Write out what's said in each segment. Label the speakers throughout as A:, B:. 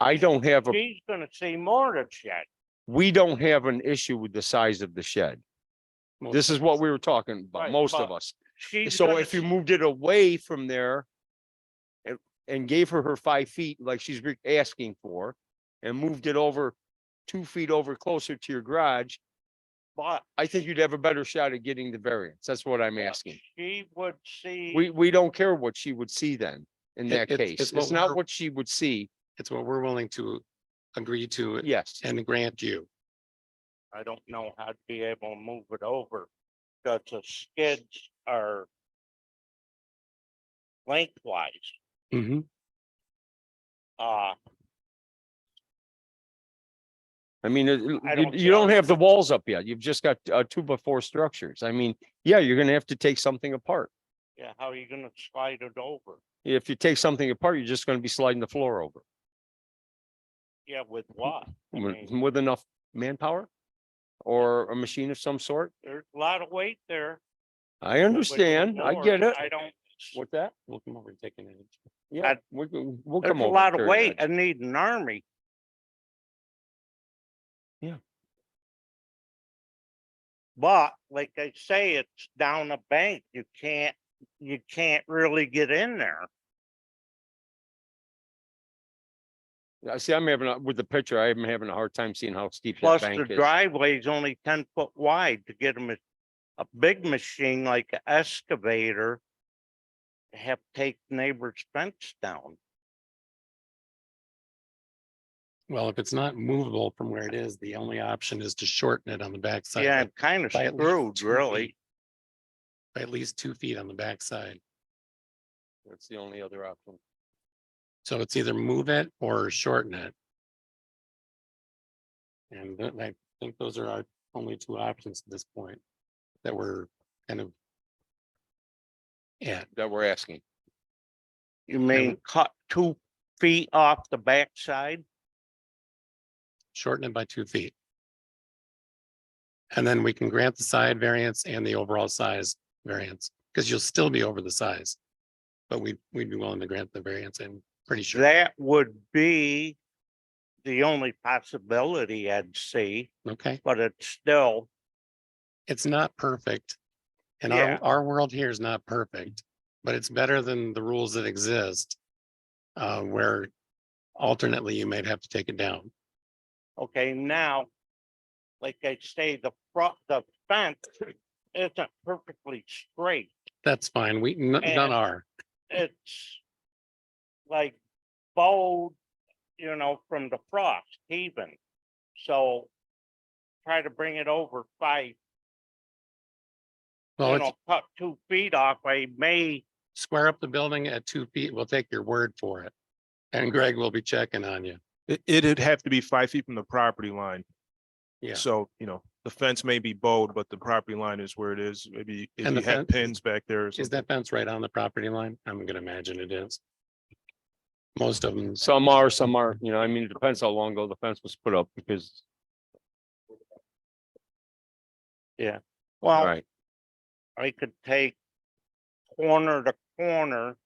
A: I don't have, a.
B: She's gonna see more of shed.
A: we don't have an issue with the size of the shed. This is what we were talking about,
B: Right,
A: most of
B: but
A: us.
B: She's
A: So
B: gonna
A: if you
B: see-
A: moved it away from there and, and gave her her five feet like she's re- asking for and moved it over two feet over closer to your garage,
B: But
A: I think you'd have a better shot at getting the variance. That's what I'm
B: Yeah.
A: asking.
B: she would see.
A: We, we don't care what she would see then in
C: It-
A: that
C: it's-
A: case.
C: it's
A: It's
C: what
A: not
C: we're-
A: what she would see.
C: It's what we're willing to agree to
A: Yes.
C: and grant you.
B: I don't know how to be able to move it over, because the skids are lengthwise, uh,
A: I mean, it- you,
B: I don't
A: you don't
B: care.
A: have the walls up yet. You've just got uh, two by four structures. I mean, yeah, you're gonna have to take something apart.
B: yeah, how are you gonna slide it over?
A: If you take something apart, you're just gonna be sliding the floor over
B: Yeah, with what? I
A: with,
B: mean,
A: with enough manpower or a machine of some sort.
B: There's a lot of weight there.
A: I
B: but with
A: understand. I
B: more,
A: get it.
B: I don't,
A: What's that?
C: We'll come over and take an inch.
A: Yeah,
B: I-
A: we can- we'll
B: there's
A: come
B: a
A: over.
B: lot of
A: during
B: weight.
A: that.
B: I need an army.
A: Yeah.
B: But like I say, it's down a bank. You can't, you can't really get in there.
A: I see, I'm having, a- with the picture, I am having a hard time seeing how steep that
B: Plus the
A: bank is.
B: driveway is only ten foot wide to get a ma- a big machine like an excavator. Have to take neighbor's fence down.
C: Well, if it's not movable from where it is, the only option is to shorten it on the backside.
B: Yeah,
C: by-
B: I'm kind of
C: by at least
B: screwed,
C: two
B: really.
C: feet. By at least two feet on the backside.
A: That's the only other option.
C: So it's either move it or shorten it. And that- I think those are our only two options at this point that we're kind of at.
A: That we're asking.
B: You mean cut two feet off the backside?
C: shorten it by two feet. And then we can grant the side variance and the overall size variance, because you'll still be over the size. But we, we'd be willing to grant the variance, I'm pretty sure.
B: That would be the only possibility I'd see,
C: Okay,
B: but it's still,
C: it's not perfect. And
B: Yeah.
C: our, our world here is not perfect, but it's better than the rules that exist. Uh, where alternately you might have to take it down.
B: okay, now, like I say, the front, the fence isn't perfectly straight.
C: That's fine. We, n- none
B: And-
C: are.
B: it's like bold, you know, from the frost even. So try to bring it over five,
C: Well,
B: you
C: it's
B: know, cut two feet off. I may,
C: square up the building at two feet. We'll take your word for it. And Greg will be checking on you.
D: It, it'd have to be five feet from the property line.
C: Yeah.
D: So, you know, the fence may be bold, but the property line is where it is. Maybe if
C: And
D: you
C: the
D: had
C: fence-
D: pins back there. or
C: Is
D: something.
C: that fence right on the property line? I'm gonna imagine it is. Most of them,
A: Some are, some are, you know, I mean, it depends how long ago the fence was put up because,
D: Oh.
A: all
B: well,
A: right.
B: I could take corner to corner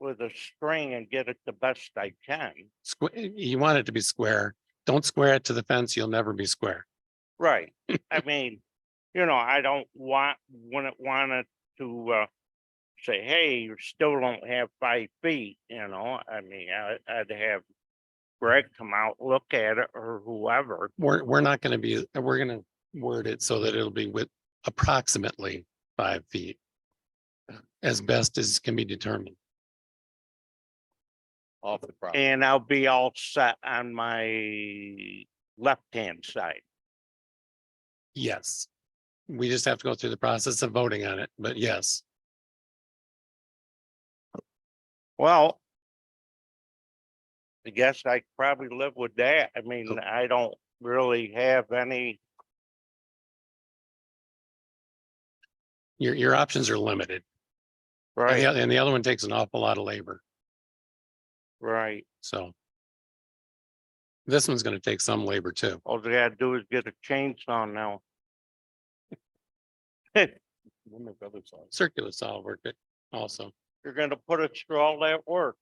B: with a string and get it the best I can.
C: you want it to be square. Don't square it to the fence. You'll never be square.
B: Right. I mean, you know, I don't want, wouldn't want it to, uh, say, hey, you still don't have five feet, you know, I mean, I, I'd have Greg come out, look at it or whoever.
C: We're, we're not gonna be, we're gonna word it so that it'll be with approximately five feet. As best as can be determined.
A: Off the property.
B: And I'll be all set on my left-hand side.
C: Yes. We just have to go through the process of voting on it, but yes,
B: Well, I guess I probably live with that. I mean, I don't really have any,
C: your, your options are limited. And
B: right,
C: the- and the other one takes an awful lot of labor,
B: right.
C: so. This one's gonna take some labor too.
B: All they gotta do is get a chainsaw now.
C: Circular saw work it also.
B: You're gonna put us through all that work.